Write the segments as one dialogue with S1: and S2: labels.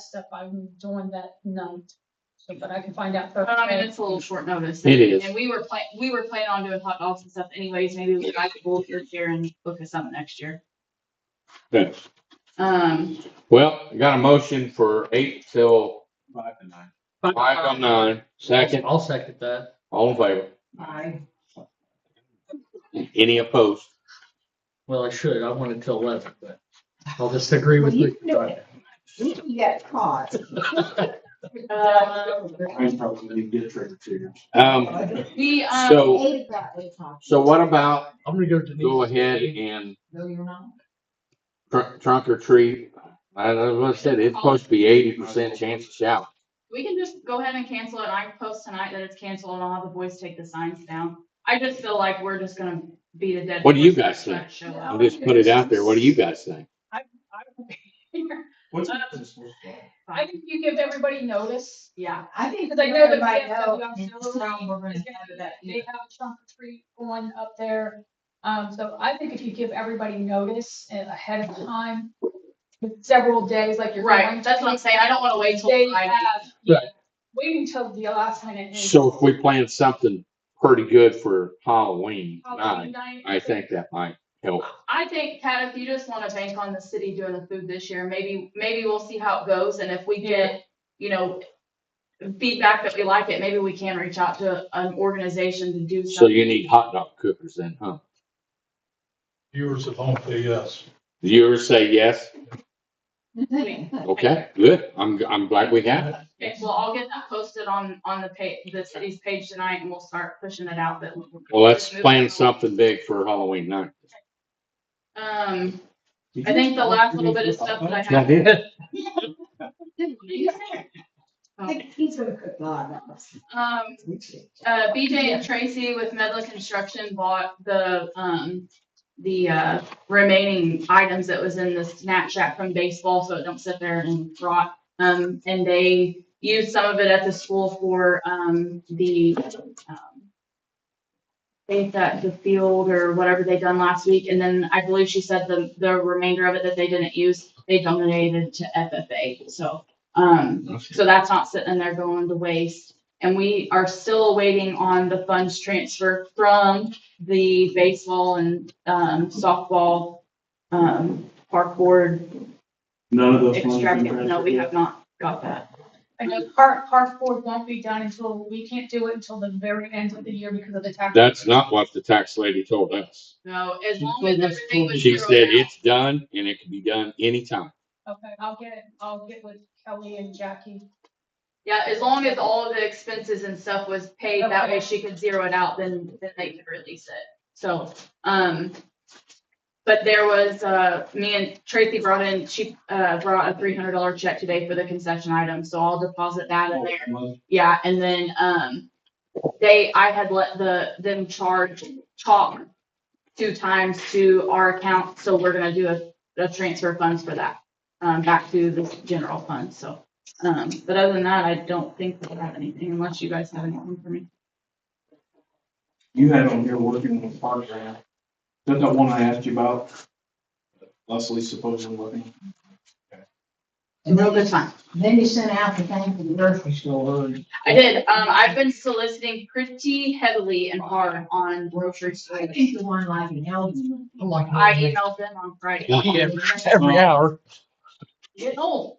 S1: stuff I'm doing that night. So, but I can find out.
S2: But I mean,
S1: Thursday.
S2: it's a little short notice.
S3: It is.
S2: And we were plan, we were planning on doing hot dogs and stuff anyways, maybe I could book this year and book us up next year.
S3: Okay.
S2: Um,
S3: Well, I got a motion for eight till
S4: Five to nine.
S3: five till nine. Second,
S5: I'll second that.
S3: all in favor?
S4: Aye.
S3: Any opposed?
S5: Well, I should. I wanted till eleven, but I'll just agree with
S6: Well, you
S5: you.
S6: can do it. You got caught.
S2: uh,
S4: I probably didn't get trick or treaters.
S3: Um,
S2: we, um,
S3: so,
S6: Eight o'clock, eight o'clock.
S3: so what about
S5: I'm gonna go to Denise.
S3: go ahead and
S6: No, you're not.
S3: tr- trunk or treat? I know what I said, it's supposed to be eighty percent chance of shower.
S2: we can just go ahead and cancel it. I can post tonight that it's canceled and I'll have the boys take the signs down. I just feel like we're just gonna beat a dead.
S3: What do you
S2: horse if
S3: guys
S2: that
S3: think?
S2: show
S1: Yeah.
S3: I'll
S2: up.
S3: just put it out there. What do you guys think?
S4: What's this for?
S1: I think you give everybody notice.
S2: Yeah,
S6: I think.
S1: Cause I know that
S6: everybody
S1: VFW
S6: knows
S1: auxiliary
S6: it's not we're gonna
S1: is
S6: have
S1: gonna
S6: that
S1: be- They have a trunk or treat going up there. Um, so I think if you give everybody notice and ahead of time, several days, like you're.
S2: right.
S1: going
S2: That's
S1: to-
S2: what I'm saying. I don't wanna wait till
S1: They
S2: Friday.
S1: have-
S3: Right.
S1: Waiting till the last minute. is
S3: So if we plan something pretty good for Halloween
S1: Halloween
S3: night,
S1: night.
S3: I think that might help.
S2: I think, Pat, if you just wanna bank on the city doing the food this year, maybe, maybe we'll see how it goes, and if we get, you know, feedback that we like it, maybe we can reach out to an organization to do something.
S3: So you need hot dog cookers then, huh?
S7: viewers at home say yes.
S3: The Viewers say yes.
S6: evening.
S3: Okay, good. I'm, I'm glad we have it.
S2: Okay, well, I'll get that posted on, on the pa, the city's page tonight, and we'll start pushing it out that. we're-
S3: Well, let's plan
S2: Moving
S3: something big for Halloween night.
S2: on. Um, I think the last little bit of stuff that I
S3: Yeah, I
S2: have.
S3: did.
S6: I think he's gonna cook a lot of us.
S2: Um, uh, BJ and Tracy with Medla Construction bought the, um, the, uh, remaining items that was in the Snapchat from baseball, so it don't sit there and rot. Um, and they used some of it at the school for, um, the, um, I think that the field or whatever they done last week, and then I believe she said the, the remainder of it that they didn't use, they donated to FFA, so, um, so that's not sitting in there going to waste. And we are still waiting on the funds transfer from the baseball and, um, softball, um, park board
S4: None of those. ones have been
S2: extravaganza. No, we have not got that.
S1: I know park, park board won't be done until, we can't do it until the very end of the year because of the tax.
S3: That's not what the tax lady told us.
S2: No, as
S5: She
S2: long
S5: told
S2: as
S5: us
S2: everything was
S3: She
S2: zeroed out.
S3: said it's done and it can be done anytime.
S1: Okay, I'll get, I'll get with Kelly and Jackie.
S2: Yeah, as long as all of the expenses and stuff was paid, that way
S1: Okay.
S2: she could zero it out, then, then they could release it. So, um, but there was, uh, me and Tracy brought in, she, uh, brought a three hundred dollar check today for the concession item, so I'll deposit that
S4: Oh.
S2: in there. Yeah, and then, um, they, I had let the, them charge chalk two times to our account, so we're gonna do a, a transfer funds for that, um, back to the general fund, so. Um, but other than that, I don't think we have anything unless you guys have anything for me.
S4: You had on here working with Park Grant. Is that that one I asked you about? Leslie supposedly working.
S6: And then you-
S2: time.
S6: then you sent out the thing for the grocery store.
S2: I did, um, I've been soliciting pretty heavily and hard on grocery
S6: I
S2: stores.
S6: think the one like in Elgin.
S5: I'm like,
S2: I emailed them on Friday.
S3: Yeah.
S5: Every hour.
S2: Get old.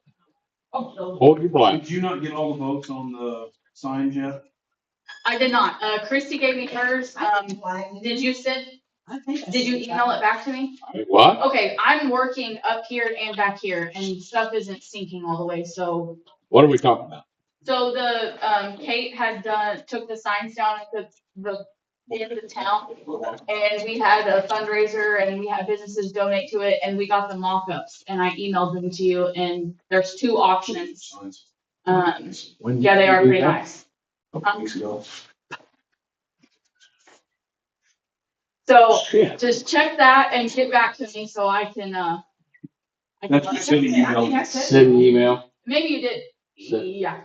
S3: Hold your black.
S4: Did you not get all the votes on the signs yet?
S2: I did not, uh, Christy gave me hers, um, did you send, did you email it back to me?
S3: What?
S2: Okay, I'm working up here and back here and stuff isn't sinking all the way, so.
S3: What are we talking about?
S2: So the, um, Kate had done, took the signs down at the, the, end of the town. And we had a fundraiser and we had businesses donate to it and we got the mock-ups and I emailed them to you and there's two options.
S4: Signs.
S2: Um,
S3: When did
S2: yeah, they
S3: you
S2: are
S3: do
S2: pretty
S3: that?
S2: nice.
S4: A couple weeks ago.
S2: So
S3: Shit.
S2: just check that and get back to me so I can, uh. I can let
S4: That's what
S2: her-
S4: city email.
S3: Send an email.
S2: Maybe you did,
S3: So-
S2: yeah,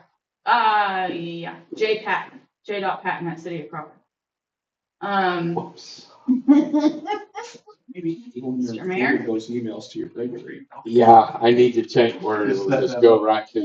S2: uh, yeah, J Patton, J dot Patton at City of Crawford. Um,
S3: Whoops.
S4: Maybe even your
S2: Mr. Mayor?
S4: Those emails to your regular email.
S3: Yeah, I need to check where it is. Just go right to